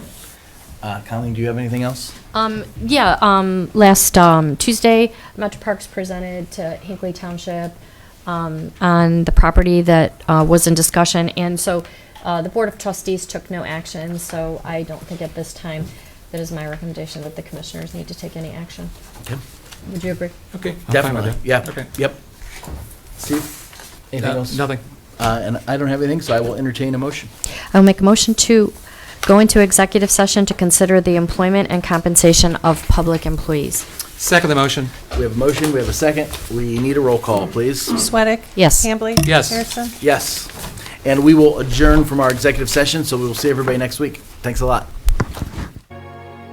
Uh, Colleen, do you have anything else? Um, yeah, um, last, um, Tuesday, Metro Parks presented to Hinkley Township, um, on the property that, uh, was in discussion, and so, uh, the Board of Trustees took no action, so I don't think at this time, that is my recommendation that the commissioners need to take any action. Yep. Would you agree? Okay. I'm fine with Definitely, that. yeah, Okay. yep. Steve? Anything Uh, else? Nothing. Uh, And I don't have anything, so I will entertain a motion. I'll make a motion to go into executive session to consider the employment and compensation of public employees. Second the motion. We have a motion, we have a second. We need a roll call, please. Sweattick? Yes. Hambley? Yes. Harrison? Yes. And we will adjourn from our executive session, so we will see everybody next week. Thanks a lot.